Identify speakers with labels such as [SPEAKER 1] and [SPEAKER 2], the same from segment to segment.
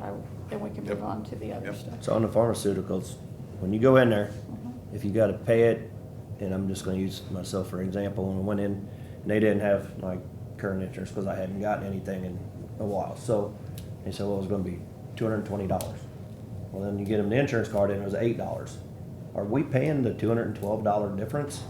[SPEAKER 1] I- then we can move
[SPEAKER 2] Yep.
[SPEAKER 1] on to the other
[SPEAKER 2] Yep.
[SPEAKER 1] stuff.
[SPEAKER 3] So on the pharmaceuticals, when you go in there, if you gotta pay it, and I'm just gonna use myself for example, when I went in, and they didn't have like current insurance, cause I hadn't gotten anything in a while, so they said, well, it's gonna be two hundred and twenty dollars. Well, then you get them the insurance card and it was eight dollars. Are we paying the two hundred and twelve dollar difference?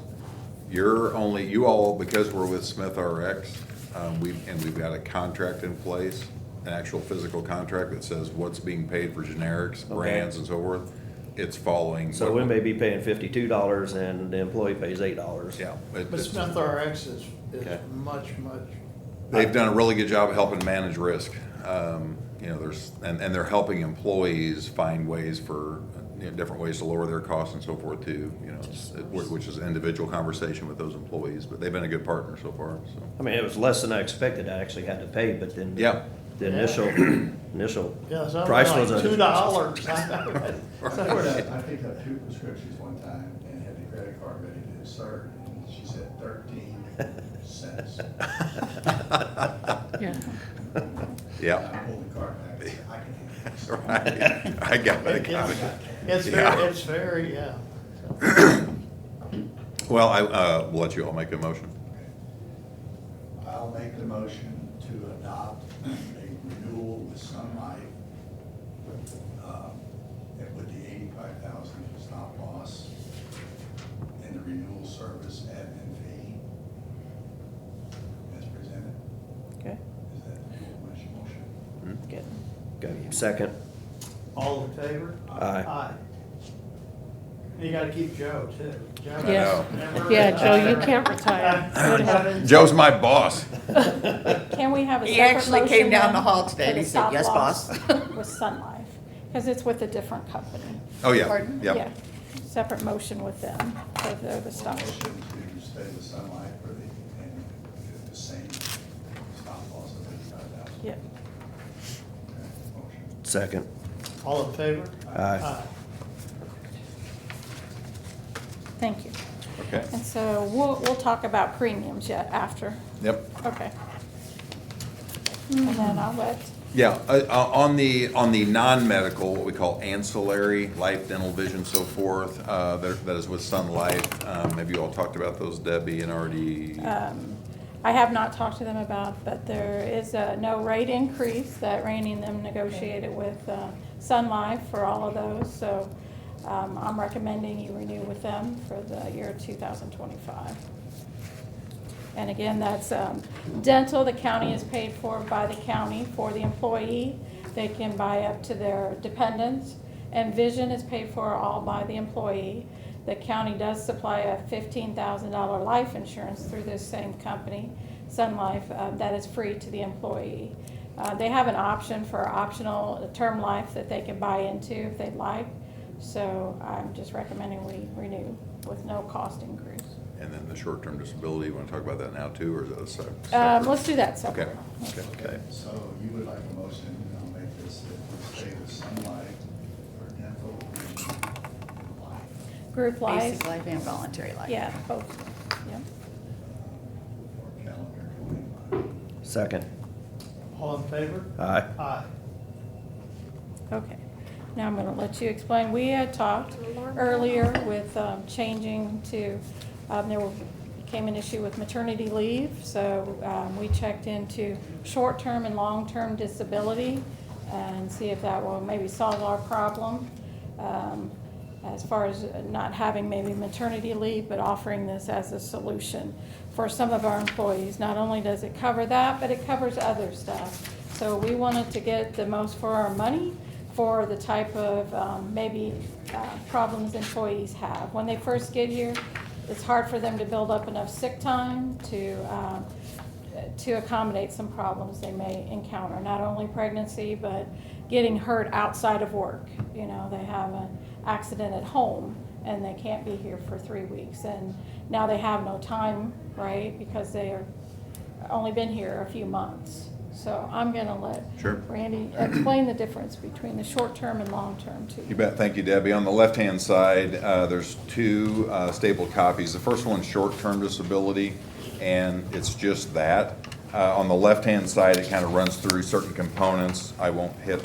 [SPEAKER 2] You're only, you all, because we're with Smith RX, um, we, and we've got a contract in place, an actual physical contract that says what's being paid for generics, brands and so forth, it's following.
[SPEAKER 3] So we
[SPEAKER 2] what-
[SPEAKER 3] may be paying fifty-two dollars and the employee pays eight dollars.
[SPEAKER 2] Yeah. it-
[SPEAKER 4] But
[SPEAKER 2] it's-
[SPEAKER 4] Smith RX is,
[SPEAKER 3] Okay.
[SPEAKER 4] is much, much,
[SPEAKER 2] They've done a really good job of helping manage risk. Um, you know, there's, and, and they're helping employees find ways for, you know, different ways to lower their costs and so forth too, you know, it's- it- which is an individual conversation with those employees, but they've been a good partner so far, so.
[SPEAKER 3] I mean, it was less than I expected, I actually had to pay, but then. the-
[SPEAKER 2] Yeah.
[SPEAKER 3] The initial, initial
[SPEAKER 4] yeah, something
[SPEAKER 3] price was.
[SPEAKER 4] like
[SPEAKER 3] a-
[SPEAKER 4] two dollars.
[SPEAKER 5] I picked up- I picked up two prescriptions one time and had the credit card ready to insert, and she said thirteen cents.
[SPEAKER 1] Yeah.
[SPEAKER 2] Yeah.
[SPEAKER 5] I pulled the card back, and said, I can handle this.
[SPEAKER 2] Right, I got it, got it.
[SPEAKER 4] It's
[SPEAKER 2] Yeah.
[SPEAKER 4] very, it's very, yeah.
[SPEAKER 2] Well, I, uh, will let you all make a motion.
[SPEAKER 5] I'll make the motion to adopt a renewal with Sun Life, um, and with the eighty-five thousand stop loss and the renewal service admin fee as presented.
[SPEAKER 1] Okay,
[SPEAKER 5] Is that your motion?
[SPEAKER 1] good.
[SPEAKER 3] Go, second.
[SPEAKER 4] All in favor?
[SPEAKER 3] Aye.
[SPEAKER 4] Aye. And You gotta keep Joe too. Joe
[SPEAKER 2] I
[SPEAKER 1] Yes.
[SPEAKER 2] know.
[SPEAKER 4] never
[SPEAKER 1] Yeah, Joe, you
[SPEAKER 4] retires.
[SPEAKER 1] can't retire. Good heavens.
[SPEAKER 2] Joe's my boss.
[SPEAKER 1] Can we have a
[SPEAKER 6] He
[SPEAKER 1] separate
[SPEAKER 6] actually
[SPEAKER 1] motion
[SPEAKER 6] came down
[SPEAKER 1] then
[SPEAKER 6] the hall today
[SPEAKER 1] for
[SPEAKER 6] and
[SPEAKER 1] the
[SPEAKER 6] he said,
[SPEAKER 1] stop
[SPEAKER 6] "Yes,
[SPEAKER 1] loss
[SPEAKER 6] boss."
[SPEAKER 1] With Sun Life, because it's with a different company.
[SPEAKER 2] Oh, yeah,
[SPEAKER 6] Pardon?
[SPEAKER 2] yeah.
[SPEAKER 1] Separate motion with them for the, the
[SPEAKER 5] Or
[SPEAKER 1] stop.
[SPEAKER 5] Motion to stay with Sun Life for the, and the same stop loss of eighty-five thousand.
[SPEAKER 1] Yeah,
[SPEAKER 5] Motion.
[SPEAKER 3] Second.
[SPEAKER 4] All in favor?
[SPEAKER 3] Aye.
[SPEAKER 1] thank you.
[SPEAKER 2] Okay,
[SPEAKER 1] And so we'll, we'll talk about premiums yet after.
[SPEAKER 2] yep.
[SPEAKER 1] Okay. And then I'll let,
[SPEAKER 2] Yeah, uh, uh, on the, on the non-medical, what we call ancillary, life, dental, vision, so forth, uh, that that is with Sun Life. Um, Have you all talked about those, Debbie and already?
[SPEAKER 1] Uh, I have not talked to them about, but there is a no rate increase that Randy and them negotiated with uh, Sun Life for all of those. So um, I'm recommending you renew with them for the year 2025. And again, that's um, dental, the county is paid for by the county for the employee. They can buy up to their dependents. And vision is paid for all by the employee. The county does supply a fifteen thousand dollar life insurance through this same company, Sun Life, uh, that is free to the employee. Uh, They have an option for optional term life that they can buy into if they'd like. So I'm just recommending we renew with no cost increase.
[SPEAKER 2] And then the short-term disability, want to talk about that now too, or is that a sec-
[SPEAKER 1] Um,
[SPEAKER 2] separate?
[SPEAKER 1] let's do that
[SPEAKER 2] Okay,
[SPEAKER 1] separate.
[SPEAKER 2] okay.
[SPEAKER 3] Okay.
[SPEAKER 5] So you would like a motion, and I'll make this, that we stay with Sun Life for dental and life,
[SPEAKER 1] Group life,
[SPEAKER 6] Basic life and voluntary life.
[SPEAKER 1] yeah, both, yeah.
[SPEAKER 5] for calendar twenty-five.
[SPEAKER 3] Second.
[SPEAKER 4] All in favor?
[SPEAKER 3] Aye.
[SPEAKER 4] Aye.
[SPEAKER 1] Okay, now I'm gonna let you explain, we had talked earlier with, um, changing to, um, there were- came an issue with maternity leave, so, um, we checked into short-term and long-term disability and see if that will maybe solve our problem, um, as far as not having maybe maternity leave, but offering this as a solution for some of our employees. Not only does it cover that, but it covers other stuff. So we wanted to get the most for our money for the type of um, maybe uh, problems employees have. When they first get here, it's hard for them to build up enough sick time to, um, to accommodate some problems they may encounter, not only pregnancy, but getting hurt outside of work. You know, they have an accident at home and they can't be here for three weeks. And now they have no time, right, because they are, only been here a few months. So I'm gonna let
[SPEAKER 2] Sure.
[SPEAKER 1] Randy, explain the difference between the short-term and long-term too.
[SPEAKER 2] You bet. Thank you, Debbie. On the left-hand side, uh, there's two uh, stapled copies. The first one's short-term disability, and it's just that. Uh, On the left-hand side, it kind of runs through certain components. I won't hit